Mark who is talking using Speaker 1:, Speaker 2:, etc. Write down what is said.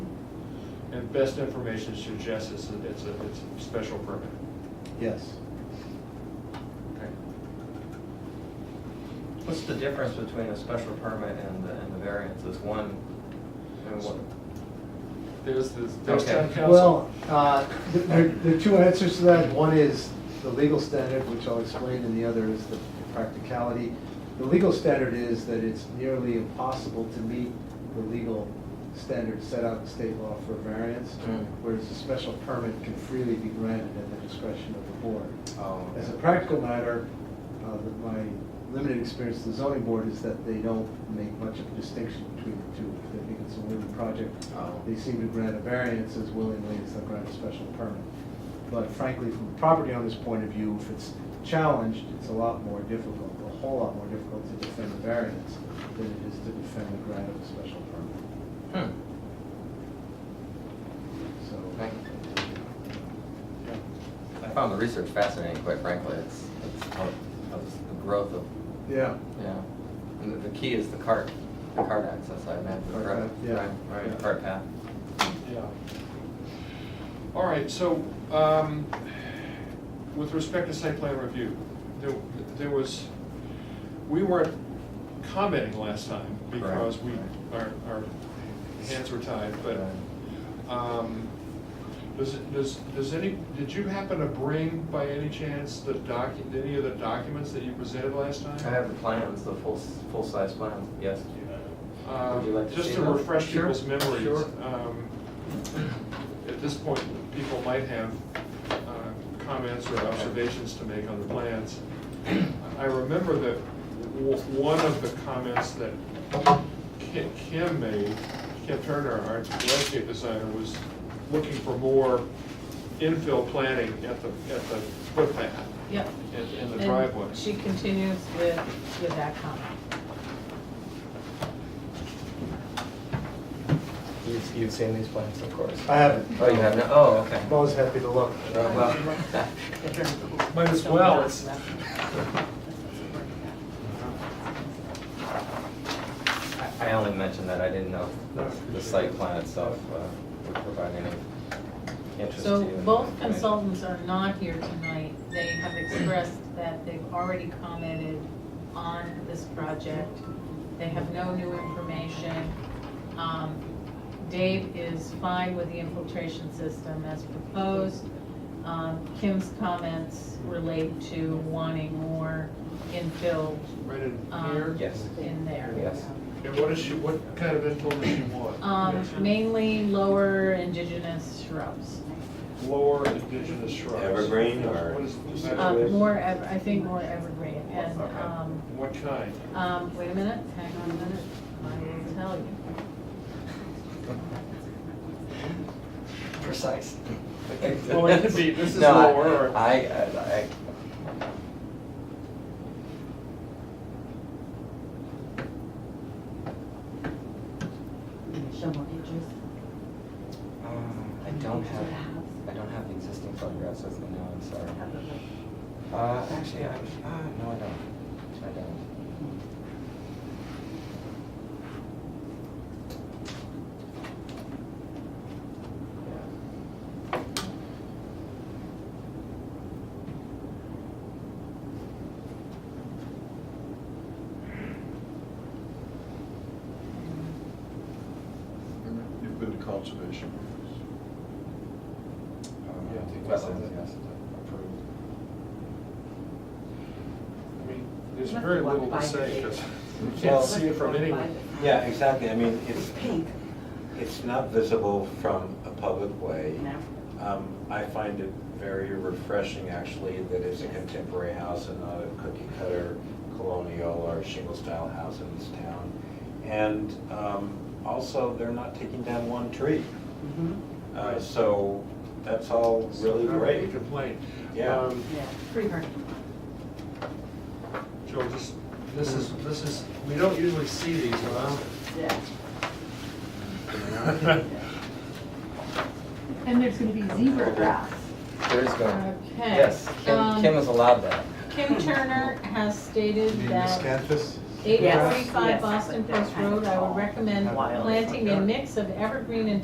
Speaker 1: and best information suggests it's a, it's a, it's a special permit.
Speaker 2: Yes.
Speaker 1: Okay.
Speaker 3: What's the difference between a special permit and the, and the variance? Is one, I mean, what-
Speaker 1: There's, this- there's
Speaker 3: Okay.
Speaker 1: town council.
Speaker 2: Well, uh, th- there there are two answers to that. One is the legal standard, which I'll explain, and the other is the practicality. The legal standard is that it's nearly impossible to meet the legal standard set out in state law for variance,
Speaker 3: Mm.
Speaker 2: whereas a special permit can freely be granted at the discretion of the board.
Speaker 3: oh.
Speaker 2: As a practical matter, uh, that my limited experience with the zoning board is that they don't make much of a distinction between the two. If They think it's a win project.
Speaker 3: Oh.
Speaker 2: They seem to grant a variance as willingly as they grant a special permit. But frankly, from a property owner's point of view, if it's challenged, it's a lot more difficult, a whole lot more difficult to defend a variance than it is to defend the grant of a special permit.
Speaker 3: Hmm.
Speaker 2: So.
Speaker 3: Thank I found the research fascinating, quite frankly. It's, it's, how- of the growth of,
Speaker 2: Yeah.
Speaker 3: yeah. And the- the key is the cart, the cart access, I imagine,
Speaker 2: Cart
Speaker 3: right?
Speaker 2: path, yeah.
Speaker 3: Right,
Speaker 2: Yeah.
Speaker 3: Right, cart path.
Speaker 1: Yeah. All right, so, um, with respect to site plan review, there, there was, we weren't commenting last time because we, our, our hands were tied, but, um, does, does, does any, did you happen to bring by any chance the docu, any of the documents that you presented last time?
Speaker 3: I have the plans, the full, full-size plans, yes.
Speaker 1: Uh,
Speaker 3: Would you like to
Speaker 1: Just
Speaker 3: see
Speaker 1: to
Speaker 3: them?
Speaker 1: refresh
Speaker 3: Sure,
Speaker 1: people's memories.
Speaker 3: sure.
Speaker 1: um, At this point, people might have uh, comments or observations to make on the plans. I remember that w- one of the comments that Ki- Kim made, Kim Turner, our landscape designer, was looking for more infill planning at the, at the footpath
Speaker 4: Yep.
Speaker 1: and and the
Speaker 4: And
Speaker 1: driveway.
Speaker 4: She continues with, with that comment.
Speaker 5: You've, you've seen these plans, of course.
Speaker 2: I haven't.
Speaker 3: Oh, you have no, oh, okay.
Speaker 2: I'm always happy to look.
Speaker 3: Oh, well.
Speaker 5: Might as
Speaker 4: So
Speaker 5: well.
Speaker 4: not
Speaker 5: It's-
Speaker 4: left.
Speaker 3: I- I only mentioned that, I didn't know if the site plan itself uh, would provide any interest to you.
Speaker 4: So
Speaker 3: in
Speaker 4: both
Speaker 3: that information.
Speaker 4: consultants are not here tonight. They have expressed that they've already commented on this project. They have no new information. Um, Dave is fine with the infiltration system as proposed. Um, Kim's comments relate to wanting more infill
Speaker 1: Right in
Speaker 4: um,
Speaker 1: here?
Speaker 3: Yes.
Speaker 4: in there.
Speaker 3: Yes.
Speaker 1: And what is she, what kind of infill does she want?
Speaker 4: Um, mainly lower indigenous shrubs.
Speaker 1: lower indigenous shrubs.
Speaker 6: Evergreen or-
Speaker 1: What is- is that-
Speaker 4: Uh, more, ev- I think more evergreen, and,
Speaker 1: Okay.
Speaker 4: um,
Speaker 1: What kind?
Speaker 4: um, wait a minute, hang on a minute, I will tell you.
Speaker 3: Precise.
Speaker 1: Well, it could be, this is
Speaker 3: No, I-
Speaker 1: lower or-
Speaker 3: I, I,
Speaker 7: Show more pictures.
Speaker 3: I, um, I don't have, I don't have the existing photographs with me now, I'm sorry. Uh, actually, I, ah, no, I don't, I don't.
Speaker 6: You've been to conservation.
Speaker 3: Um,
Speaker 1: Yeah, I think that's
Speaker 3: Wetlands,
Speaker 1: it.
Speaker 3: yes.
Speaker 6: Approved.
Speaker 1: I mean, there's
Speaker 7: Must
Speaker 1: very
Speaker 7: be
Speaker 1: little to
Speaker 7: one
Speaker 1: say
Speaker 7: by the
Speaker 1: because you
Speaker 6: Well-
Speaker 1: can't see it from anywhere.
Speaker 6: Yeah, exactly, I mean,
Speaker 7: It's
Speaker 6: it's,
Speaker 7: pink.
Speaker 6: it's not visible from a public way.
Speaker 7: No.
Speaker 6: Um, I find it very refreshing, actually, that it's a contemporary house and not a cookie cutter colonial or shingle style house in this town. And um, also, they're not taking down one tree.
Speaker 7: Mhm.
Speaker 6: Uh, So that's all really
Speaker 1: Not
Speaker 6: great.
Speaker 1: a Complaint.
Speaker 6: Yeah.
Speaker 1: Um,
Speaker 7: Yeah, pretty hard.
Speaker 1: Joel, this, this is, this is, we don't usually see these, huh?
Speaker 7: Yeah.
Speaker 8: And there's gonna be zebra grass.
Speaker 3: There is going,
Speaker 4: Okay.
Speaker 3: yes, Kim,
Speaker 4: um,
Speaker 3: Kim is allowed that.
Speaker 4: Kim Turner has stated
Speaker 2: The
Speaker 4: that
Speaker 2: miscanthus?
Speaker 4: eight
Speaker 7: Yes,
Speaker 4: forty-five
Speaker 7: yes,
Speaker 4: Boston
Speaker 7: but they're
Speaker 4: Post
Speaker 7: kind of
Speaker 4: Road, I
Speaker 7: tall.
Speaker 4: would recommend
Speaker 2: Wild.
Speaker 4: planting a mix of evergreen and